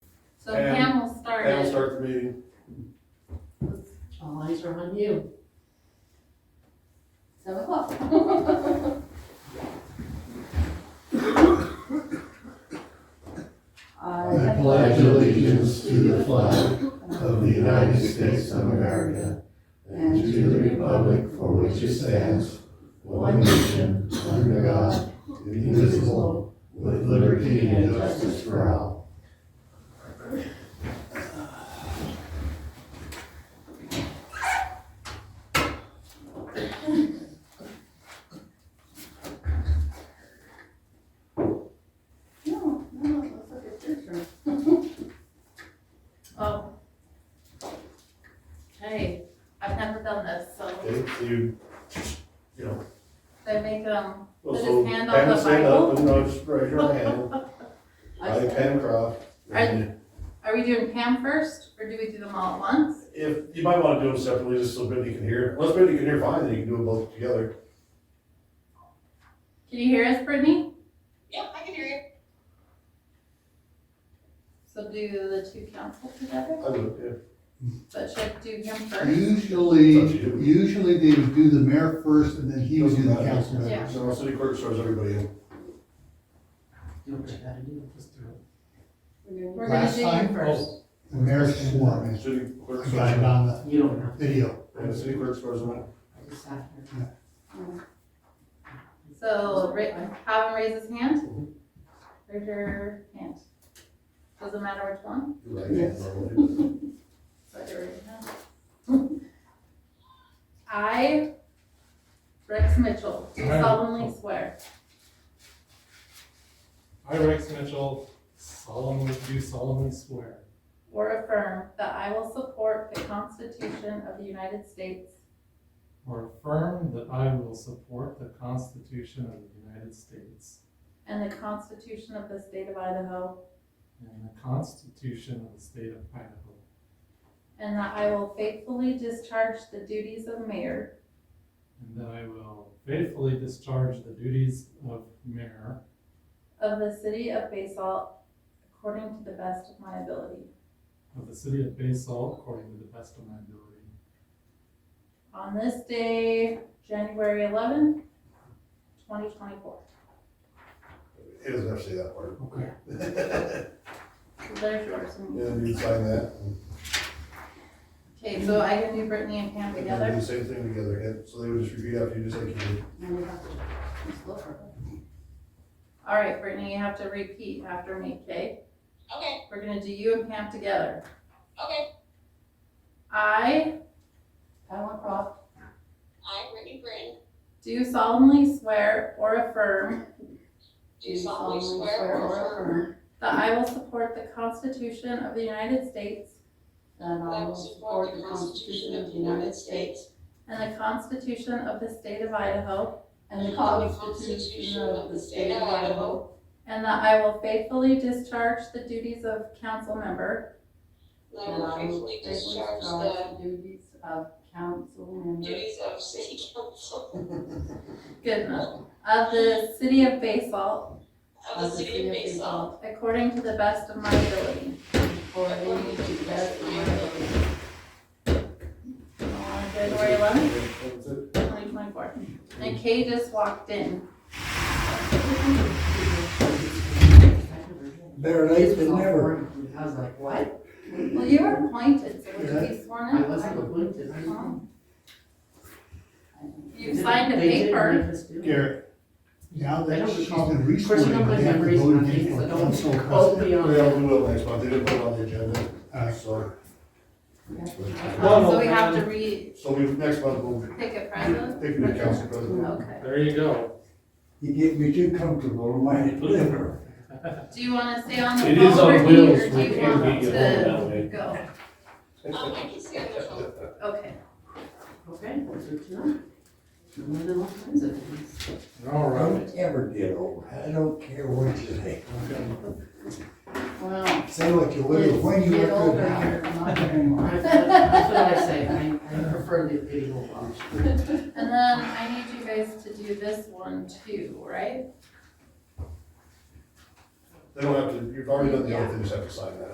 So And Pam will start Pam will it. start the meeting. All eyes are on you. Seven o'clock. I pledge allegiance to the flag of the United States of America and to the republic for which it stands, one nation, under God, indivisible, with liberty and justice for all. No, no, that's a good picture. Oh. Hey, I've never done this, so Okay, so you, you know, they make, um, well, Put so his hand on Pam the will stand up Bible. and I'll just raise your hand. I, I- Pam Croft. And are we doing Pam first, or do we do them all at once? If, you might want to do them separately, just so Brittany can hear. Unless Brittany can hear fine, then you can do them both together. Can you hear us, Brittany? Yep, I can hear you. So do the two councils together, I would, but should I do him first? Usually, That's what you do. usually they would do the mayor first and then yeah. he would do the council member. Yeah. So our city clerk serves everybody in. Do what you gotta do with this through. We're gonna Last do you time? Oh. first. The mayor swore, man. City clerk I got it serves, on the You don't know. video. and the city clerk serves them. I just sat here. So, Ra- have him raise his hand. Raise your hand. Doesn't matter which one, Yes. so I can raise your hand. I, Rex Mitchell, do solemnly swear I, Rex Mitchell, solemnly do solemnly swear or affirm that I will support the Constitution of the United States or affirm that I will support the Constitution of the United States and the Constitution of the State of Idaho, and the Constitution of the State of Idaho, and that I will faithfully discharge the duties of mayor and that I will faithfully discharge the duties of mayor of the city of Basalt according to the best of my ability. of the city of Basalt according to the best of my ability. on this day, January eleventh, twenty twenty-four. It doesn't have to say that part. Okay. So there's yours. Yeah, and you sign that. Okay, so I can do Brittany and Pam And then together. do the same thing together, and so they would just repeat after you, just like you did. And we have to just look for it. All right, Brittany, you have to repeat after me, okay? Okay, We're gonna do you and Pam together. okay. I Pamela Croft, I, Brittany Britton, do solemnly swear or affirm do solemnly swear or affirm that I will support the Constitution of the United States That that I will support the Constitution of the United States and the Constitution of the State of Idaho, And the Constitution of the State of Idaho. and that I will faithfully discharge the duties of council member and I will faithfully discharge the duties of council member. duties of city council goodness of the city of Basalt of the city of Basalt according to the best of my ability. For any to the best of my ability. On Uh, January eleventh, That's it. twenty twenty-four. And Kay just walked in. Better late than never. I was like, what? Well, you were appointed, so would you be sworn I in? wasn't appointed. You signed a paper. Garrett, now I that don't she's recall. been Of course, resworn, you don't put they have to memories vote on again things for that don't- council Oh, custody. be on. Yeah, we will next month, they didn't put it on the agenda, Ah, Uh, so, Um, So we have to re, so we, next month, we'll pick a president? pick a new council president. Okay. There you go. You get me too comfortable in my liver. Do you wanna stay on the It is phone on or do you, wheels, or do we you can't want beat it that to way. go? Um, I can see on the phone. Okay. Okay, that's good to know. More than all kinds of things. All right. Don't ever get old. I don't care what you say. Well. Say what you will, when you Get look older, good. you're not very much. That's what I say, I, I prefer the video watch. And then I need you guys to do this one too, right? They don't have to, you've already done the other thing, you just have to sign that.